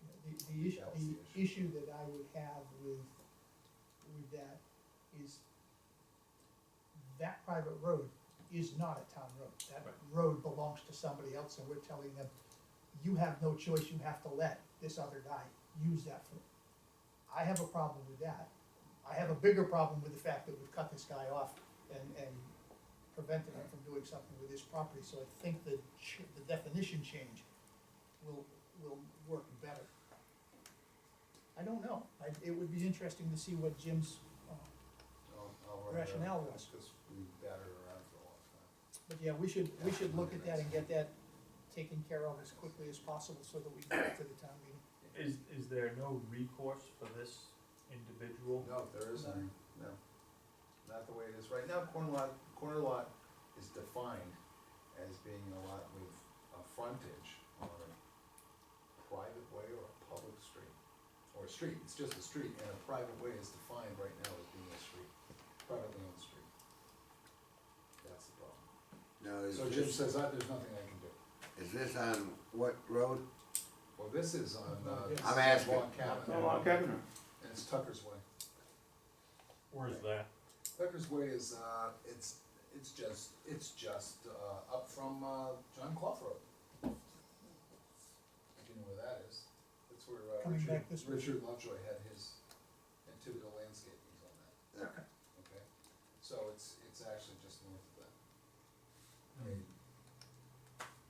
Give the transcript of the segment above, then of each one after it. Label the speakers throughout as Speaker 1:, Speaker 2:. Speaker 1: The issue,
Speaker 2: That was the
Speaker 1: the issue that I would have with, with that is that private road is not a town road. That
Speaker 3: Right.
Speaker 1: road belongs to somebody else and we're telling them, you have no choice, you have to let this other guy use that for. I have a problem with that. I have a bigger problem with the fact that we've cut this guy off and, and prevented him from doing something with his property. So I think the, ch- the definition change will, will work better. I don't know. I, it would be interesting to see what Jim's, uh,
Speaker 2: I'll- I'll write it
Speaker 1: Rationale
Speaker 2: up,
Speaker 1: was.
Speaker 2: Because we battered around for a long time.
Speaker 1: but yeah, we should, we should look at that and get that taken care of as quickly as possible so that we can get to the town meeting.
Speaker 3: Is, is there no recourse for this individual?
Speaker 2: No, there isn't, no. Not the way it is right now, corner lot, corner lot is defined as being a lot with a frontage on a private way or a public street. Or a street, it's just a street, and a private way is defined right now as being a street, privately owned street. That's the problem.
Speaker 4: Now, is
Speaker 2: So Jim
Speaker 4: this,
Speaker 2: says, "Uh, there's nothing I can do.
Speaker 4: is this on what road?
Speaker 2: Well, this is on, uh.
Speaker 1: I'm
Speaker 2: this is
Speaker 4: asking.
Speaker 2: Long Cabin. And it's Tucker's Way.
Speaker 3: Where's that?
Speaker 2: Tucker's Way is, uh, it's, it's just, it's just, uh, up from, uh, John Clough Road. If you know where that is, that's where, uh,
Speaker 1: Coming
Speaker 2: Richard,
Speaker 1: back this way.
Speaker 2: Richard Lovejoy had his, and Thibodeau Landscaping was on that, okay? So it's, it's actually just north of that, maybe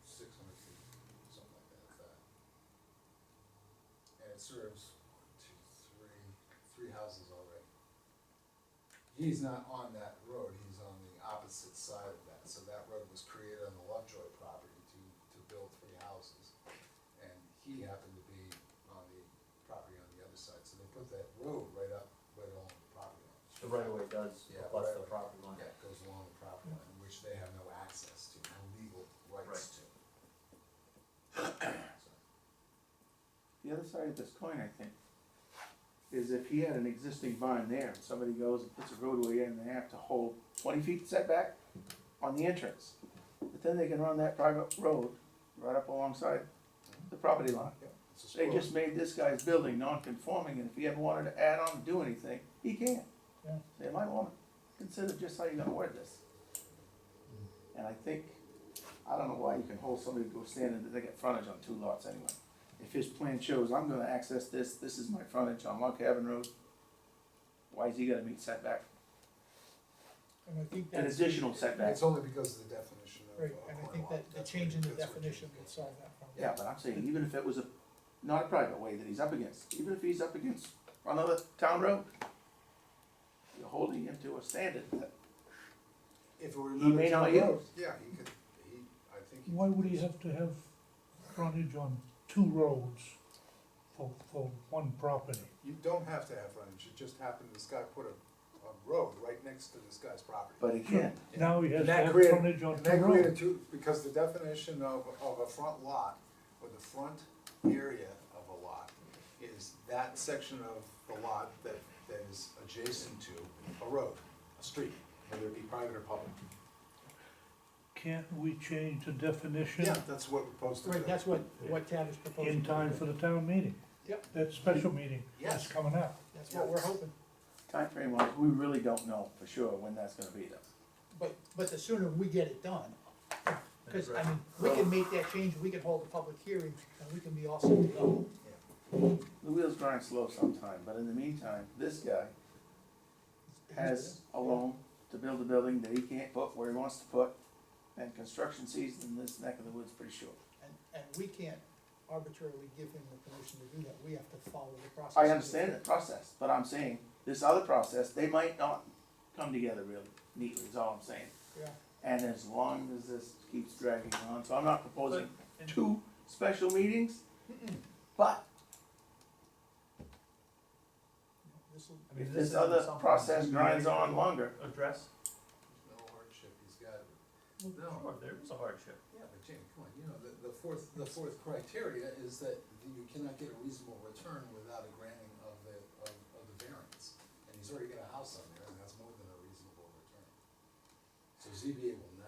Speaker 2: six hundred feet, something like that, uh. And it serves one, two, three, three houses already. He's not on that road, he's on the opposite side of that, so that road was created on the Lovejoy property to, to build three houses. And he happened to be on the property on the other side, so they put that road right up, right along the property line.
Speaker 5: The right of way does,
Speaker 2: Yeah,
Speaker 5: plus the
Speaker 2: right-of-way.
Speaker 5: property line.
Speaker 2: Yeah, it goes along the property line, which they have no access to, no legal rights to. So,
Speaker 6: The other side of this coin, I think, is if he had an existing barn there, and somebody goes and puts a roadway in, and they have to hold twenty feet setback on the entrance. But then they can run that private road right up alongside the property line.
Speaker 2: It's a
Speaker 6: They
Speaker 2: squirrel.
Speaker 6: just made this guy's building non-conforming, and if he ever wanted to add on, do anything, he can.
Speaker 1: Yeah.
Speaker 6: They might wanna consider just how you're gonna word this. And I think, I don't know why you can hold somebody to go stand and they get frontage on two lots anyway. If his plan shows, I'm gonna access this, this is my frontage on Lock Haven Road, why is he gonna meet setback,
Speaker 1: And I think
Speaker 6: an
Speaker 1: that's,
Speaker 6: additional setback?
Speaker 2: It's only because of the definition of.
Speaker 1: right,
Speaker 2: uh,
Speaker 1: and I
Speaker 2: corner
Speaker 1: think
Speaker 2: lot.
Speaker 1: that the
Speaker 2: That's
Speaker 1: change in
Speaker 2: what-
Speaker 1: the
Speaker 2: that's what Jim's
Speaker 1: definition
Speaker 2: getting
Speaker 1: will
Speaker 2: at.
Speaker 1: solve that problem.
Speaker 6: Yeah, but I'm saying, even if it was a, not a private way that he's up against, even if he's up against another town road, you're holding him to a standard that
Speaker 2: If it were
Speaker 6: he may
Speaker 2: another
Speaker 6: not
Speaker 2: town road,
Speaker 6: use.
Speaker 2: Yeah, he could, he, I think.
Speaker 7: Why would he have to have frontage on two roads for, for one property?
Speaker 2: You don't have to have frontage, it just happened, this guy put a, a road right next to this guy's property.
Speaker 6: But again,
Speaker 7: Now he has
Speaker 2: And
Speaker 7: to
Speaker 2: that
Speaker 7: have
Speaker 2: created-
Speaker 7: frontage on
Speaker 2: and
Speaker 7: two
Speaker 2: that created
Speaker 7: roads.
Speaker 2: two, because the definition of, of a front lot, or the front area of a lot, is that section of the lot that, that is adjacent to a road, a street, whether it be private or public.
Speaker 7: Can't we change the definition
Speaker 2: Yeah, that's what we're supposed to do.
Speaker 1: Right, that's what, what Tad is proposing.
Speaker 7: in time for the town meeting?
Speaker 1: Yep.
Speaker 7: That special meeting
Speaker 2: Yes.
Speaker 7: that's coming up.
Speaker 1: That's what we're hoping.
Speaker 6: timeframe wise, we really don't know for sure when that's gonna be though.
Speaker 1: But, but the sooner we get it done, cause I mean, we can make that change, we can hold a public hearing, and we can be all set to go.
Speaker 6: The wheels grind slow sometime, but in the meantime, this guy has a loan to build a building that he can't put where he wants to put. And construction season in this neck of the woods pretty short.
Speaker 1: And, and we can't arbitrarily give him the permission to do that, we have to follow the process.
Speaker 6: I understand the process, but I'm saying, this other process, they might not come together really neatly, is all I'm saying.
Speaker 1: Yeah,
Speaker 6: And as long as this keeps dragging on, so I'm not proposing
Speaker 3: But-
Speaker 6: two special meetings, but
Speaker 1: this'll,
Speaker 3: I mean,
Speaker 6: if
Speaker 3: this
Speaker 6: this
Speaker 3: is
Speaker 6: other
Speaker 3: something
Speaker 6: process
Speaker 3: we
Speaker 6: grinds
Speaker 3: can
Speaker 6: on longer,
Speaker 3: Address?
Speaker 2: No hardship, he's got it.
Speaker 3: Sure, Oh, there is a hardship.
Speaker 2: Yeah, but Jamie, come on, you know, the, the fourth, the fourth criteria is that you cannot get a reasonable return without a granting of the, of, of the variance. And he's already got a house on there, and that's more than a reasonable return. So ZBA will